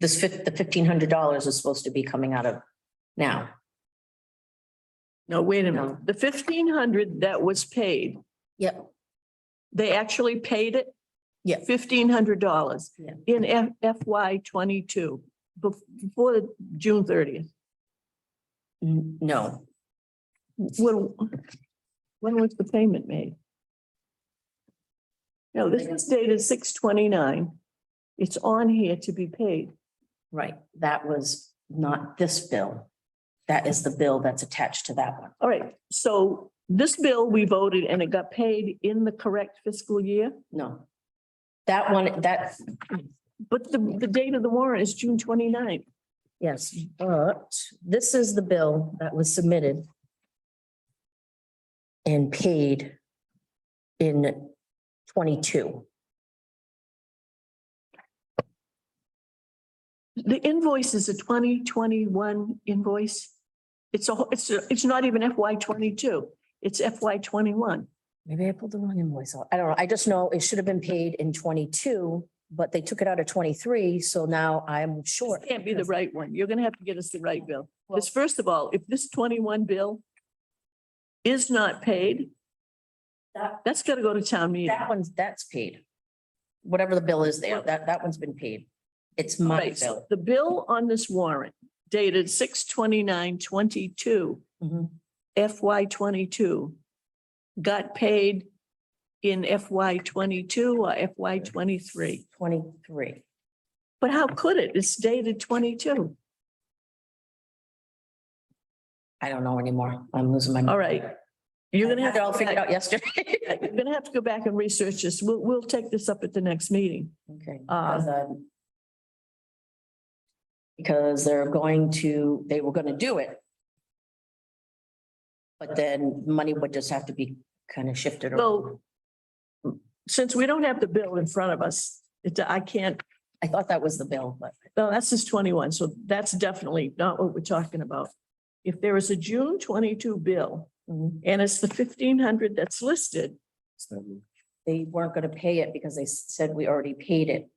this fif- the fifteen hundred dollars is supposed to be coming out of now. No, wait a No. minute. The fifteen hundred that was paid, Yep. they actually paid it? Yeah. Fifteen hundred dollars Yeah. in F- FY twenty-two, bef- before June thirtieth. N- No, When, when was the payment made? No, this is dated six twenty-nine. It's on here to be paid. right, that was not this bill. That is the bill that's attached to that one. All right, so this bill we voted and it got paid in the correct fiscal year, No. That one, that, but the, the date of the warrant is June 29th. yes, but this is the bill that was submitted and paid in twenty-two. The invoice is a twenty twenty-one invoice. It's a, it's, a- it's not even FY twenty-two. It's FY twenty-one. Maybe I pulled the wrong invoice out. I don't know. I just know it should have been paid in twenty-two, but they took it out of twenty-three, so now I'm short. Can't be the right one. You're gonna have to get us the right bill. Well- Because first of all, if this twenty-one bill is not paid, That- that's gotta go to town meeting. That one's, that's paid. Whatever the bill is there, that, that one's been paid. It's my Right, so bill. the bill on this warrant dated six twenty-nine twenty-two Mhm. FY twenty-two got paid in FY twenty-two or FY twenty-three. Twenty-three. But how could it? It's dated twenty-two. I don't know anymore. I'm losing my. All right. You're gonna have I had it all figured to, out yesterday. you're gonna have to go back and research this. We'll, we'll take this up at the next meeting. Okay. Uh, because, um, Because they're going to, they were gonna do it. But then money would just have to be kind of shifted. around. So since we don't have the bill in front of us, it, I can't, I thought that was the bill, but no, that's just twenty-one, so that's definitely not what we're talking about. If there is a June twenty-two bill mm, and it's the fifteen hundred that's listed, they weren't gonna pay it because they said we already paid it.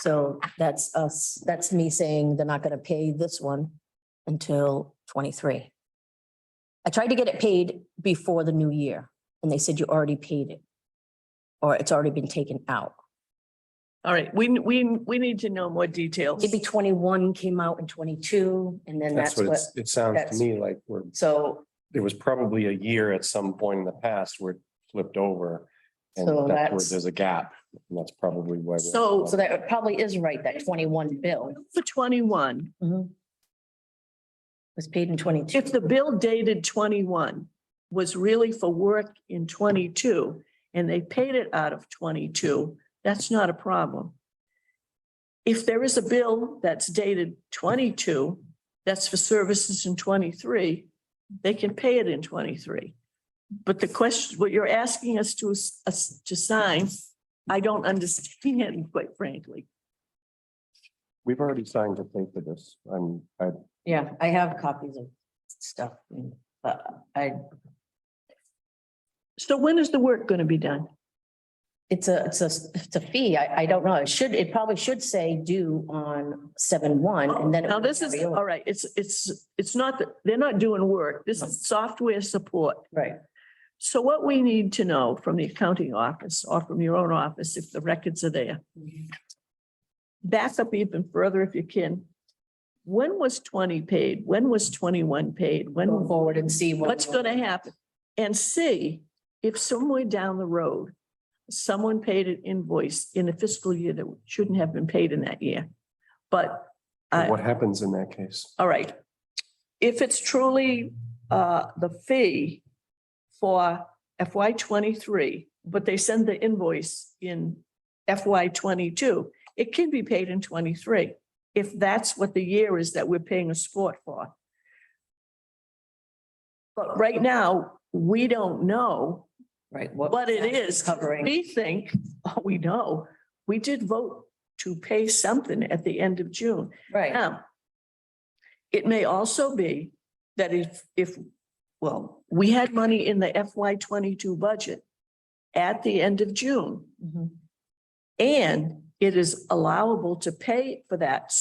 So that's us, that's me saying they're not gonna pay this one until twenty-three. I tried to get it paid before the new year and they said you already paid it. Or it's already been taken out. all right, we, we, we need to know more details. maybe twenty-one came out in twenty-two, and then That's that's what what, it's, it sounds to that's- me like we're, so, there was probably a year at some point in the past where it flipped over. And So that's where that's- there's a gap. And that's probably why. we're- So- so that probably is right, that twenty-one bill For twenty-one, was paid in twenty-two. if the bill dated twenty-one was really for work in twenty-two and they paid it out of twenty-two, that's not a problem. If there is a bill that's dated twenty-two, that's for services in twenty-three, they can pay it in twenty-three. But the question, what you're asking us to, s- us to sign, I don't understand, quite frankly. We've already signed a thing for this. I'm, I, Yeah, I have copies of stuff, but I, So when is the work going to be done? it's a, it's a, it's a fee, I, I don't know, it should, it probably should say due on seven-one, and then. it Now, would this is, carry over. all right, it's, it's, it's not, that they're not doing work. This is software support. Right, So what we need to know from the accounting office or from your own office, if the records are there, back up even further if you can. When was twenty paid? When was twenty-one paid? When, go forward and see. what- what's going to happen? And see if somewhere down the road, someone paid an invoice in a fiscal year that shouldn't have been paid in that year. But I, what happens in that case? all right. If it's truly uh, the fee for FY twenty-three, but they send the invoice in FY twenty-two, it can be paid in twenty-three, if that's what the year is that we're paying a sport for. But right now, we don't know Right. what it is. Covering, We think, oh, we know, we did vote to pay something at the end of June. right, Now, it may also be that if, if, well, we had money in the FY twenty-two budget at the end of June, Mhm. and it is allowable to pay for that